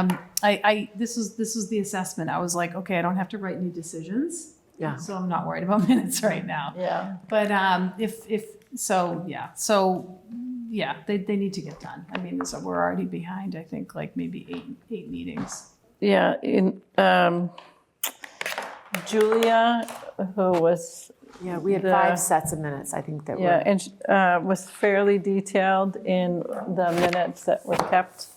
Um, I, I, this was, this was the assessment. I was like, okay, I don't have to write new decisions. Yeah. So I'm not worried about minutes right now. Yeah. But, um, if, if, so, yeah, so, yeah, they, they need to get done. I mean, so we're already behind, I think, like maybe eight, eight meetings. Yeah, in, um, Julia, who was, Yeah, we had The- five sets of minutes, I think that yeah, were, and, she, uh, was fairly detailed in the minutes that were kept.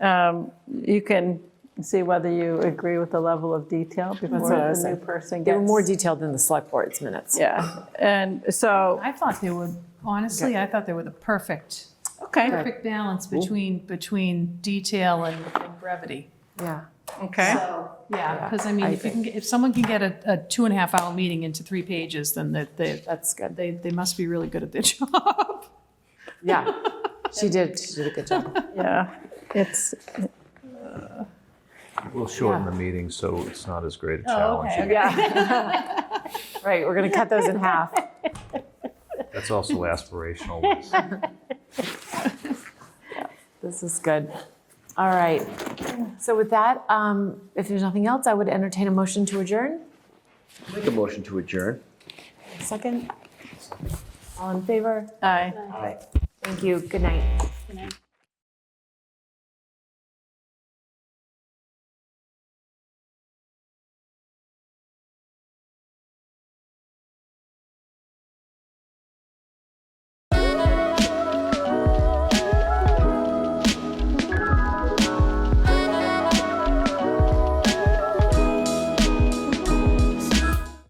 Um, you can see whether you agree with the level of detail what I before was the new saying. person they gets. were more detailed than the select board's minutes. Yeah, and so, I thought they were, honestly, I thought they were the perfect, okay, perfect balance between, between detail and and brevity. Yeah. okay. So, yeah, because I mean, I if you can, get- if someone can get a, a two and a half hour meeting into three pages, then that, they, That's good. they, they must be really good at their job. Yeah. She did, she did a good job. Yeah, it's, We'll shorten the meeting so it's not as great a challenge. Yeah. Right, we're gonna cut those in half. That's also aspirational. Liz. This is good. All right. So with that, um, if there's nothing else, I would entertain a motion to adjourn. Make a motion to adjourn. Second? All in favor? I. Thank you. Good night.